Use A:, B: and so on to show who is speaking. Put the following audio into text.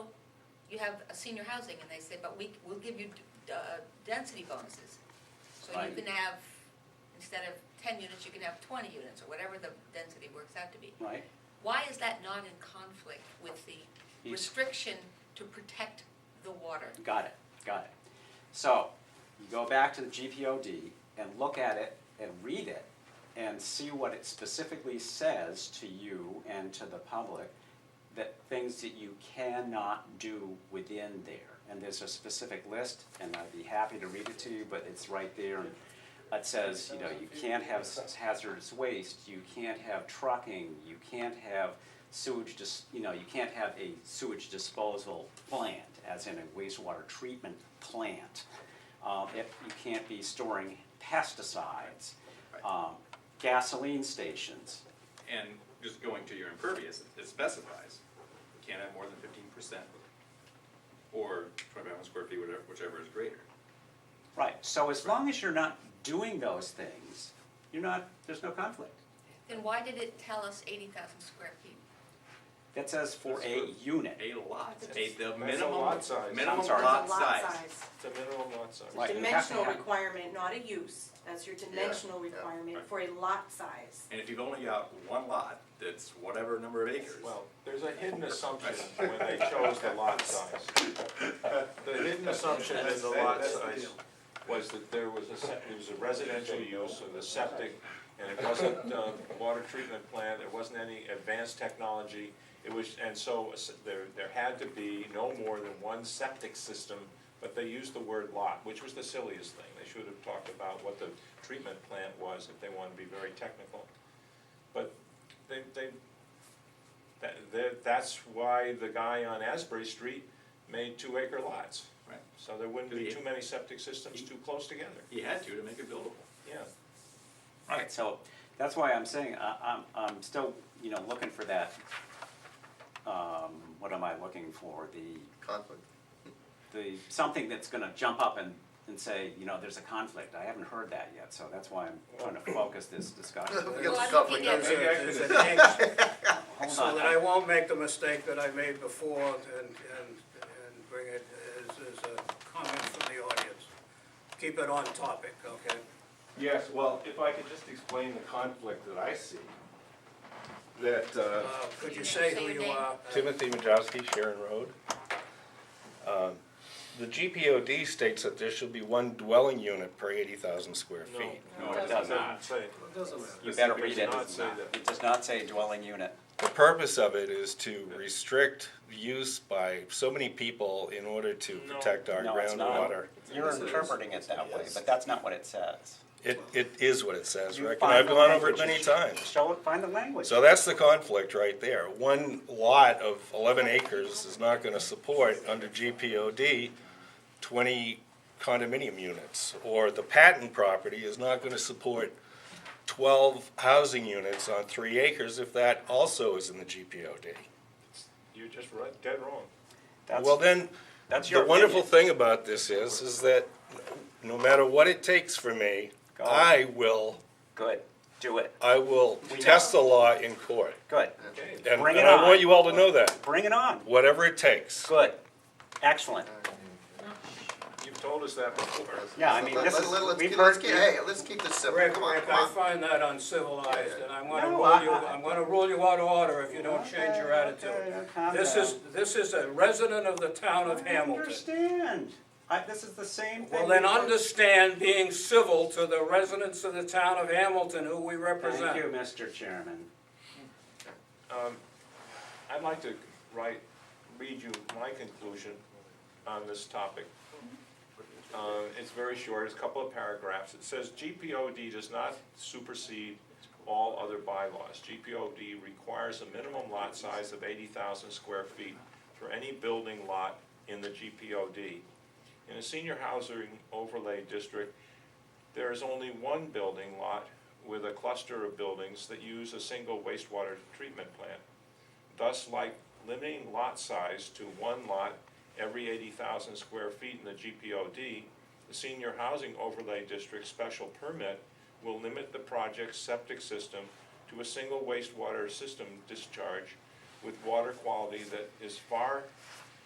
A: you have a senior housing, and they say, but we, we'll give you d- uh, density bonuses. So you
B: Right.
A: can have, instead of ten units, you can have twenty units, or whatever the density works out to be.
B: right?
A: Why is that not in conflict with the
B: He's-
A: restriction to protect the water?
B: Got it, got it. So, you go back to the GPOD and look at it and read it and see what it specifically says to you and to the public that things that you cannot do within there. And there's a specific list, and I'd be happy to read it to you, but it's right there. And It says, you know, you can't have s- hazardous waste, you can't have trucking, you can't have sewage dis, you know, you can't have a sewage disposal plant, as in a wastewater treatment plant. Um, if you can't be storing pesticides, um, gasoline stations,
C: And just going to your impervious, it specifies, you can't have more than fifteen percent, or twenty-five square feet, whatever, whichever is greater.
B: Right, so as long as you're not doing those things, you're not, there's no conflict.
A: Then why did it tell us eighty thousand square feet?
B: That says for a
C: That's
B: unit.
C: A lot,
D: That's-
C: a, the
D: that's a
C: minimum,
D: lot size.
C: minimum
B: I'm sorry.
C: lot
E: Lot size.
C: size.
D: It's a minimum lot size.
E: It's
B: Right,
E: a
B: you have to
E: dimensional
B: have-
E: requirement, not a use, that's your dimensional
C: yeah,
E: requirement
C: right.
E: for a lot size.
C: And if you've only got one lot, that's whatever number of acres.
D: Well, there's a hidden assumption when they chose the lot size. The hidden assumption in the lot size was that there was a, sep- it was a residential use of the septic, and it wasn't a water treatment plant, there wasn't any advanced technology. It was, and so uh, s- there, there had to be no more than one septic system, but they used the word lot, which was the silliest thing. They should have talked about what the treatment plant was if they wanted to be very technical. But they, they, that, that, that's why the guy on Asbury Street made two acre lots.
C: Right.
D: So there wouldn't be too many septic systems too close together,
C: He had to to make it buildable.
D: yeah.
B: Right, so that's why I'm saying, I, I'm, I'm still, you know, looking for that, um, what am I looking for? The,
F: conflict.
B: the, something that's gonna jump up and, and say, you know, there's a conflict. I haven't heard that yet, so that's why I'm trying to focus this discussion.
F: We
A: Well,
F: got
A: I'm
F: the conflict.
A: looking at-
G: Maybe I could
F: It's-
G: amend
B: Hold
G: so
B: on,
G: that I won't make the mistake that I made before and, and, and bring it as, as a comment from the audience. Keep it on topic, okay?
H: Yes, well, if I could just explain the conflict that I see, that, uh,
G: Uh, could you say who you are?
I: Timothy Majowski, Sharon Road. Um, The GPOD states that there should be one dwelling unit per eighty thousand square
D: No.
I: feet.
C: No, it
B: does
C: does
B: not.
C: not.
D: Say,
G: Doesn't matter.
B: you better read
D: does
B: it.
D: not say that.
B: It does not say dwelling unit.
I: The purpose of it is to restrict use by so many people in order to
D: No.
I: protect our
B: No, it's not.
I: groundwater.
B: You're interpreting it that way, but that's not what it says.
I: It, it is what it says,
B: You
I: Rick, and
B: find
I: I've
B: the
I: gone over it
B: language.
I: many times.
B: Show, it- find the language.
I: So that's the conflict right there. One lot of eleven acres is not gonna support, under GPOD, twenty condominium units. Or the patent property is not gonna support twelve housing units on three acres if that also is in the GPOD.
D: You're just right, dead wrong.
B: That's-
I: Well, then,
B: that's
I: the
B: your
I: wonderful
B: opinion.
I: thing about this is, is that no matter what it takes for me,
B: Go.
I: I will,
B: Good, do it,
I: I will
B: We know.
I: test the law in court.
B: good.
D: Okay.
I: And
B: Bring it
I: and I
B: on.
I: want you all to know that.
B: Bring it on,
I: Whatever it takes.
B: good, excellent.
D: You've told us that before.
B: Yeah, I mean,
F: Let-
B: this
F: let-
B: is,
F: let's
B: we've
F: keep- let's
B: heard,
F: keep- Hey, let's keep this simple,
G: Rick,
F: come on,
I: Rick,
F: come
I: I
F: on.
G: I find that uncivilized, and I'm gonna
B: No,
G: rule you,
B: I- I-
G: I'm gonna rule you out of order if you don't change your
B: Okay,
G: attitude.
B: okay, calm
G: This
B: down.
G: is, this is a resident of the town of
B: I
G: Hamilton.
B: understand. I, this is the same thing.
G: Well, then
B: we heard-
G: understand being civil to the residents of the town of Hamilton who we
B: Thank you,
G: represent.
B: Mr. Chairman.
D: Um, I'd like to write, read you my conclusion on this topic. Uh, It's very short, it's a couple of paragraphs. It says GPOD does not supersede all other bylaws. GPOD requires a minimum lot size of eighty thousand square feet for any building lot in the GPOD. In a senior housing overlay district, there is only one building lot with a cluster of buildings that use a single wastewater treatment plant. Thus, like limiting lot size to one lot every eighty thousand square feet in the GPOD, the senior housing overlay district special permit will limit the project's septic system to a single wastewater system discharge with water quality that is far